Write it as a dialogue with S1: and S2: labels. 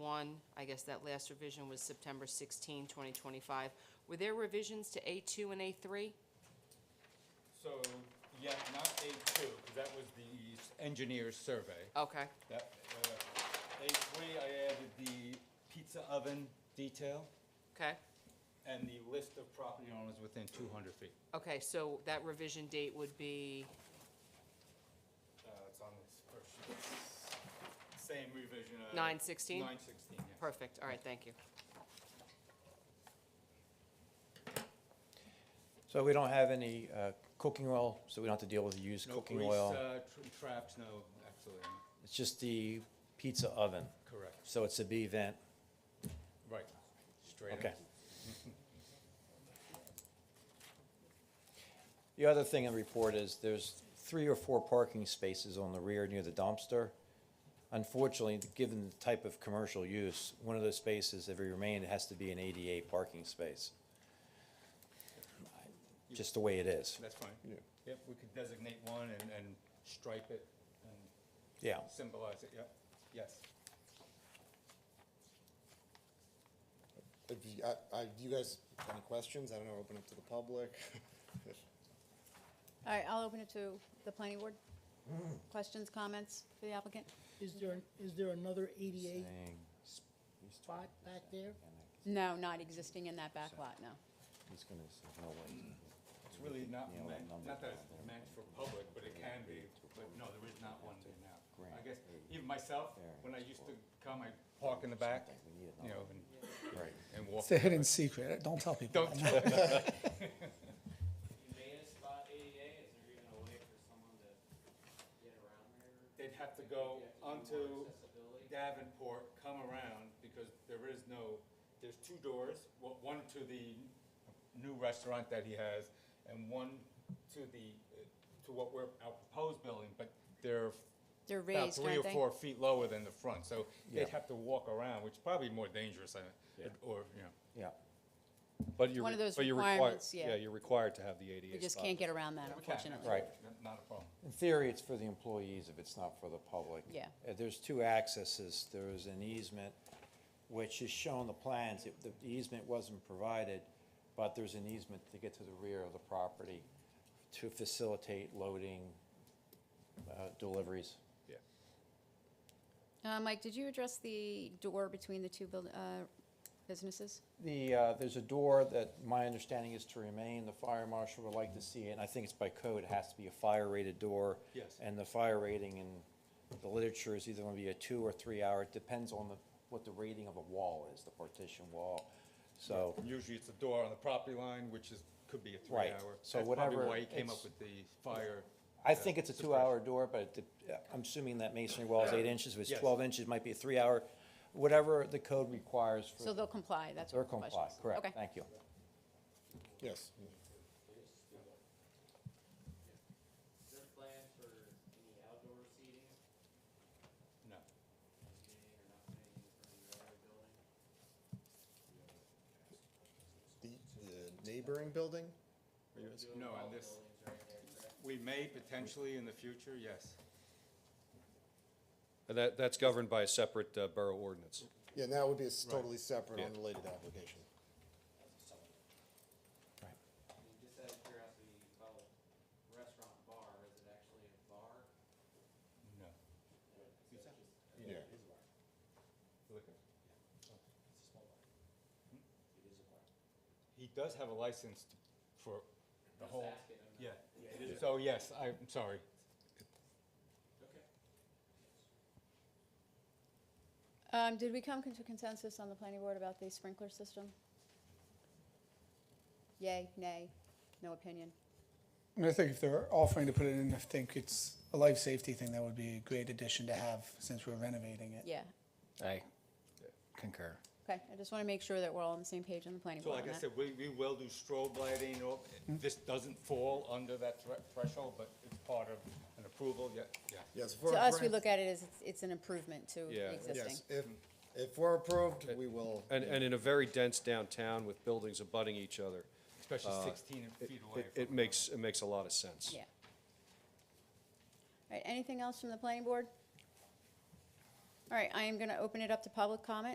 S1: A1, I guess that last revision was September 16, 2025. Were there revisions to A2 and A3?
S2: So, yeah, not A2, because that was the s- engineer's survey.
S1: Okay,
S2: That, uh, A3, I added the pizza oven detail
S1: okay.
S2: and the list of property owners within 200 feet.
S1: Okay, so that revision date would be,
S2: Uh, It's on this first sheet. Same revision. uh,
S1: 9/16?
S2: 9/16, yeah.
S1: perfect, all right, thank you.
S3: So we don't have any uh, cooking oil, so we don't have to deal with used
S2: No
S3: cooking
S2: grease,
S3: oil.
S2: uh, tr- traps, no, absolutely not.
S3: It's just the pizza oven,
S2: Correct,
S3: so it's a B vent.
S2: right, straight up.
S3: Okay. The other thing in the report is there's three or four parking spaces on the rear near the dumpster. Unfortunately, given the type of commercial use, one of those spaces, if it remained, has to be an ADA parking space. Just the way it is.
S2: That's fine. Yep, we could designate one and, and stripe it and
S3: Yeah.
S2: symbolize it, yep, yes.
S4: If you, I, I, do you guys have any questions? I don't know, open up to the public.
S5: All right, I'll open it to the planning board. Questions, comments for the applicant?
S6: Is there, is there another ADA
S3: Saying
S6: spot back there?
S5: No, not existing in that back lot, no.
S3: He's gonna say no way.
S2: Mm. It's really not
S3: Yeah,
S2: meant,
S3: number
S2: not that
S3: down
S2: it's
S3: there.
S2: meant for public, but it can be, but no, there is not one there now. I
S3: grant
S2: guess,
S3: a
S2: even myself, when I
S3: variance
S2: used
S3: for
S2: to come, I park in the back,
S3: something. We need
S2: you know,
S3: another one.
S2: and,
S3: Right.
S2: and walk.
S7: It's a
S2: the
S7: hidden
S2: back.
S7: secret. Don't tell people.
S2: Don't tell
S8: You may have spot ADA, is there even a way for someone to get around there?
S2: They'd have to go
S8: Do you have to do more
S2: onto
S8: Accessibility?
S2: Davenport, come around, because there is no, there's two doors, wa- one to the new restaurant that he has, and one to the, uh, to what we're, our proposed building, but they're
S5: They're
S2: about
S5: raised,
S2: three or
S5: aren't they?
S2: four feet lower than the front, so
S3: Yeah.
S2: they'd have to walk around, which is probably more dangerous, I- or, you know.
S3: Yeah.
S9: But you're,
S5: One of
S9: re-
S5: those
S9: but you're required,
S5: requirements, yeah.
S9: yeah, you're required to have the ADA
S5: We just
S9: spot.
S5: can't get around that,
S2: We can,
S5: unfortunately.
S3: Right.
S2: absolutely, Not a problem.
S3: In theory, it's for the employees if it's not for the public.
S5: Yeah.
S3: Uh, There's two accesses. There is an easement, which is shown the plans. It- The easement wasn't provided, but there's an easement to get to the rear of the property to facilitate loading, uh, deliveries.
S9: Yeah.
S5: Uh, Mike, did you address the door between the two build, uh, businesses?
S3: The, uh, there's a door that my understanding is to remain, the fire marshal would like to see, it, and I think it's by code, it has to be a fire rated door.
S2: Yes.
S3: And the fire rating in the literature is either gonna be a two or three hour, it depends on the, what the rating of a wall is, the partition wall. So,
S2: Usually it's a door on the property line, which is, could be a three-hour.
S3: Right, so whatever-
S2: That's probably why he came
S3: it's-
S2: up with the fire.
S3: I
S2: uh,
S3: think it's a two
S2: suppression.
S3: hour door, but it de- I'm assuming that masonry wall is eight inches, if it's
S2: Yes.
S3: twelve inches, might be a three hour, whatever the code requires for.
S5: So they'll comply, that's
S3: They're
S5: what the question
S3: comply,
S5: is.
S3: correct,
S5: Okay.
S3: thank you.
S4: Yes.
S8: Is there a plan for any outdoor seating,
S2: No,
S8: meaning or not putting it in front of your other building?
S4: The, the neighboring building?
S2: no,
S8: All
S2: on
S8: the
S2: this,
S8: buildings right there, correct?
S2: we may potentially in the future, yes.
S9: And that, that's governed by a separate uh, borough ordinance.
S4: Yeah, and that would be a s- totally separate,
S9: Yeah.
S4: unrelated application.
S8: I mean, just out of curiosity, you call it restaurant bar, is it actually a bar?
S2: No.
S4: Yeah.
S2: Liquor. Oh. Hmm? He does have a license t- for the
S8: Just
S2: whole,
S8: asking, I'm
S2: yeah.
S8: not-
S2: So yes, I'm sorry.
S8: Okay.
S5: Um, did we come to consensus on the planning board about the sprinkler system? Yay, nay, no opinion?
S7: I think if they're offering to put it in, I think it's a life safety thing. That would be a great addition to have since we're renovating it.
S5: Yeah,
S3: I concur.
S5: okay, I just want to make sure that we're all on the same page on the planning
S2: So
S5: board on
S2: like I
S5: that.
S2: said, we, we will do strobe lighting, or,
S9: Hmm?
S2: this doesn't fall under that thre- threshold, but it's part of an approval, yeah, yeah.
S4: Yes. if we're
S5: To us, we
S4: approved-
S5: look at it as it's- it's an improvement to
S9: Yeah.
S5: the existing.
S4: Yes, if, if we're approved, we will.
S9: And, and in a very dense downtown with buildings abutting each other,
S2: Especially sixteen feet away.
S9: Uh, it,
S2: from
S9: it makes, it makes a lot of sense.
S5: Yeah. All right, anything else from the planning board? All right, I am going to open it up to public comment.